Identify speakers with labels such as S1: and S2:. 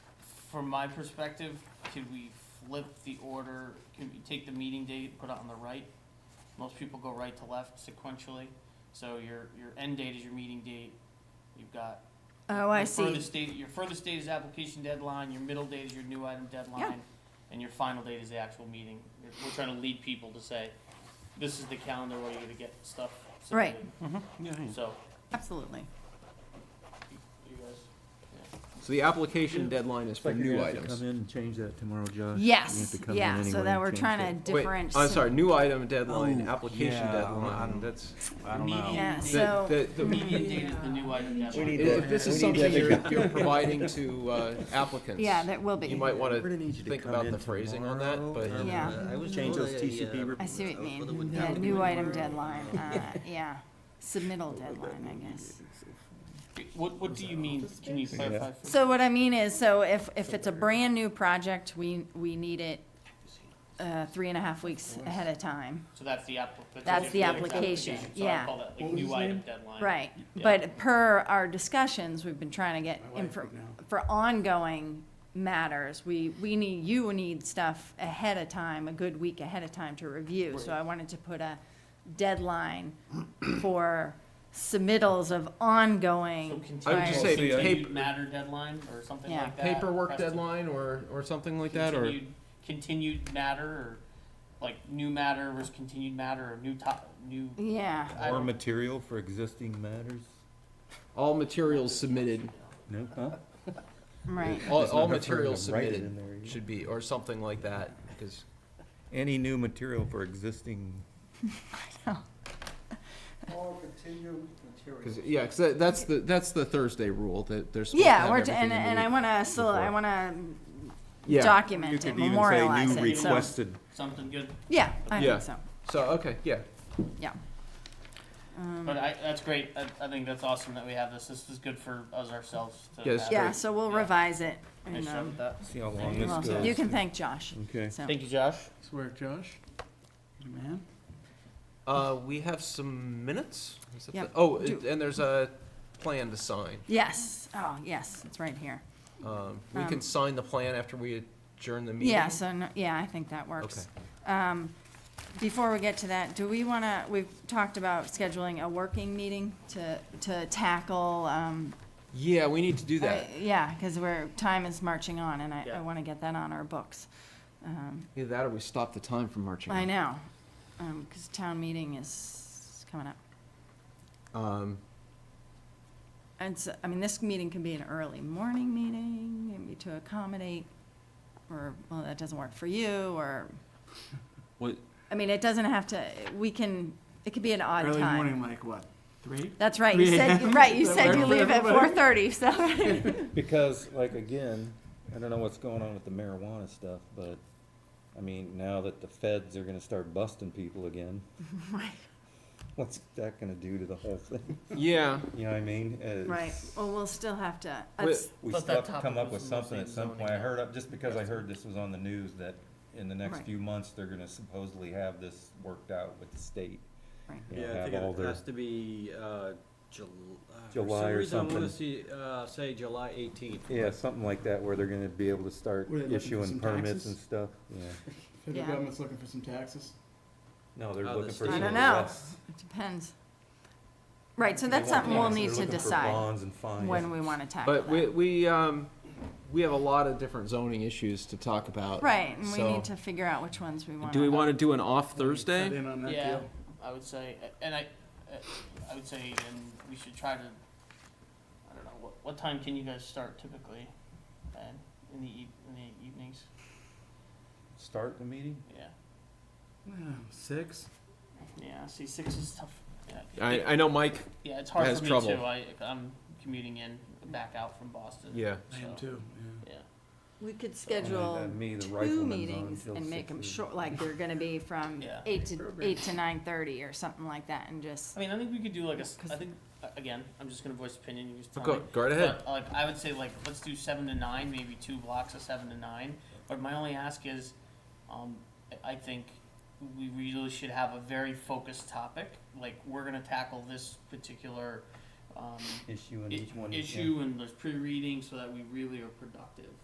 S1: from my perspective, could we flip the order, could we take the meeting date, put it on the right? Most people go right to left sequentially, so your, your end date is your meeting date, you've got.
S2: Oh, I
S1: your
S2: see.
S1: Furthest date, your furthest date is application deadline, your middle date is your new item deadline, and your final date is the actual meeting. We're- We're trying to lead people to say, this is the calendar where you're gonna get stuff
S2: Right.
S1: submitted.
S3: Yeah, yeah.
S1: So,
S2: Absolutely.
S1: you you guys,
S4: So the application deadline is
S3: It's like
S4: for
S3: you're
S4: new
S3: gonna have to Come
S4: items.
S3: in and change that tomorrow, Josh. You're gonna have
S2: Yes,
S3: to come in
S2: yeah, so
S3: anyway
S2: that
S3: and
S2: we're
S3: change
S2: trying
S3: that.
S2: to
S4: Wait,
S2: differentiate.
S4: I'm sorry, new item deadline,
S3: Oh,
S4: application
S3: yeah, I don't- I
S4: deadline,
S5: Um,
S3: don't-
S4: that's.
S3: I don't know.
S2: Yeah,
S1: Median
S2: so.
S4: The- the-
S1: the
S4: the-
S1: median date is the new item deadline.
S6: need
S4: If this is
S6: We need to
S4: something you're,
S6: figure-
S4: you're providing to uh, applicants.
S2: Yeah, that will be.
S4: You might
S3: We're gonna
S4: wanna
S3: need you to
S4: think
S3: come
S4: about
S3: in
S4: the phrasing on that,
S3: tomorrow
S4: but.
S3: and,
S2: Yeah.
S3: uh,
S6: I was
S3: Change
S6: told
S3: those
S6: I,
S3: TCP.
S6: uh,
S3: rep-
S2: I see what you
S6: I was told it
S2: mean.
S6: would
S2: Yeah,
S6: not be
S2: new
S6: anywhere.
S2: item deadline, uh, yeah. Submittal deadline, I guess.
S1: What, what do you mean? Can you clarify? for-
S2: So what I mean is, so if, if it's a brand-new project, we, we need it, uh, three and a half weeks ahead of time.
S1: So that's the app. what
S2: That's
S1: you
S2: the
S1: have to
S2: application,
S1: So I
S2: yeah.
S1: call that like new item deadline.
S2: Right,
S1: Yeah.
S2: but per our discussions, we've been trying to get, infor- for ongoing matters, we, we need, you need stuff ahead of time, a good week ahead of time to review. So I wanted to put a deadline for submittals of
S1: So
S2: ongoing.
S1: continue-
S4: I would just say
S1: continued
S4: paper-
S1: Matter deadline or something
S2: Yeah.
S1: like that.
S4: Paperwork
S1: Press-
S4: deadline or, or something like that, or?
S1: continued- Continued matter or like new matter versus continued matter or new top, new.
S2: Yeah,
S1: I
S7: Or
S1: don't-
S7: material for existing matters?
S4: All materials submitted,
S3: No, huh?
S2: right.
S4: all,
S3: It's
S4: all
S3: not hard for
S4: materials
S3: them to write it
S4: submitted
S3: in there, yeah.
S4: should be, or something like that, because
S7: Any new material for existing,
S4: Cause, yeah, 'cause that, that's the, that's the Thursday rule, that there's.
S2: Yeah, we're, t- and, and I wanna, so, I
S7: before.
S2: wanna
S4: Yeah,
S7: you
S2: document it,
S7: could even say
S2: memorialize
S7: new
S2: it, so,
S7: requested.
S1: Something good.
S2: yeah, I
S4: Yeah.
S2: think so,
S4: so, okay, yeah.
S2: yeah. Um,
S1: But I, that's great. I, I think that's awesome that we have this. This is good for us ourselves to
S4: Yes.
S1: have.
S2: Yeah, so we'll
S1: Yeah.
S2: revise it,
S1: Nice
S2: and,
S1: job with
S2: um,
S1: that.
S7: See how long
S1: you.
S7: this
S2: well,
S7: goes.
S2: you can thank Josh,
S7: Okay.
S2: so.
S1: Thank you, Josh.
S3: Swear, Josh. Good man.
S4: Uh, we have some minutes? Is that the-
S2: Yep.
S4: Oh,
S2: Do-
S4: and and there's a plan to sign.
S2: Yes, oh, yes, it's right here.
S4: Um, we
S2: Um,
S4: can sign the plan after we adjourn the meeting?
S2: Yeah, so, no- yeah, I think that works. Um, before we get to that, do we wanna, we've talked about scheduling a working meeting to, to tackle, um,
S4: Yeah, we need to do
S2: I-
S4: that.
S2: yeah, cause we're, time is marching on, and I, I
S1: Yeah.
S2: wanna get that on our books. Um,
S4: Either that or we stop the time from marching.
S2: I
S4: on.
S2: know, because town meeting is coming up.
S4: Um,
S2: And so, I mean, this meeting can be an early morning meeting, maybe to accommodate, or, well, that doesn't work for you, or,
S7: What-
S2: I mean, it doesn't have to, we can, it could be an odd
S5: Early
S2: time.
S5: morning, like what, three?
S2: That's right, you said, right, you said you leave at four thirty, so.
S7: Because, like, again, I don't know what's going on with the marijuana stuff, but, I mean, now that the feds are gonna start busting people again,
S2: Right,
S7: what's that gonna do to the whole thing?
S4: yeah,
S7: You know what I mean? It's-
S2: Right, well, we'll still have to,
S4: Wait,
S2: that's-
S7: We
S1: But
S7: still have
S1: that
S7: to come
S1: topic
S7: up
S1: was
S7: with something at
S1: mostly
S7: some point. I
S1: zoning.
S7: heard, up just because I heard this was on the news, that in the next
S2: Right.
S7: few months, they're gonna supposedly have this worked out with the state.
S2: Right.
S7: You know,
S6: Yeah, I
S7: have
S6: think
S7: all
S6: it
S7: their-
S6: has to be, uh, Jul- uh,
S7: July or
S6: For some reason, I
S7: something.
S6: wanna see, uh, say July eighteenth.
S7: Yeah, something like that, where they're gonna be able to start
S5: Were they looking for
S7: issuing
S5: some
S7: permits
S5: taxes?
S7: and stuff, yeah.
S5: Federal
S2: Yeah.
S5: government's looking for some taxes.
S7: No, they're
S6: Oh, the
S7: looking for
S6: state.
S2: I
S7: some
S2: don't
S7: of
S2: know,
S7: the rest.
S2: it depends. Right, so
S7: They
S2: that's
S7: want
S2: something we'll
S7: bonds.
S2: need
S7: They're
S2: to
S7: looking for
S2: decide
S7: bonds and fines.
S2: when we want to tackle that.
S4: but we, we, um, we have a lot of different zoning issues to talk about.
S2: Right, and we
S4: so-
S2: need to figure out which ones we want.
S4: Do we want to do an off
S5: Cut
S4: Thursday?
S5: in on that
S1: Yeah,
S5: deal.
S1: I would say, and I, I would say, and we should try to, I don't know, what, what time can you guys start typically? And in the eve, in the evenings,
S7: Start the meeting?
S1: yeah,
S5: Yeah, Six?
S1: yeah, see, six is tough. Yeah,
S4: I, I know Mike,
S1: Yeah, it's hard
S4: has
S1: for me
S4: trouble.
S1: too, I, I'm commuting in, back out from Boston.
S4: yeah.
S5: I am
S1: so,
S5: too, yeah.
S1: Yeah,
S2: We could
S7: Uh,
S2: schedule
S7: me, the
S2: two
S7: rifleman's
S2: meetings
S7: on till
S2: and make them
S7: 6:30.
S2: short, like they're gonna be from
S1: Yeah.
S2: eight to, eight to nine thirty or something like that and just,
S1: I mean, I think we could do like a, s-
S2: 'Cause-
S1: I think, uh, again, I'm just gonna voice opinion, you just tell
S4: Go,
S1: me.
S4: go right ahead.
S1: But, like, I would say, like, let's do seven to nine, maybe two blocks of seven to nine. But my only ask is, um, I- I think we really should have a very focused topic. Like, we're gonna tackle this particular, um,
S7: Issue in
S1: i-
S7: each one. yeah.
S1: issue and there's pre-reading so that we really are productive.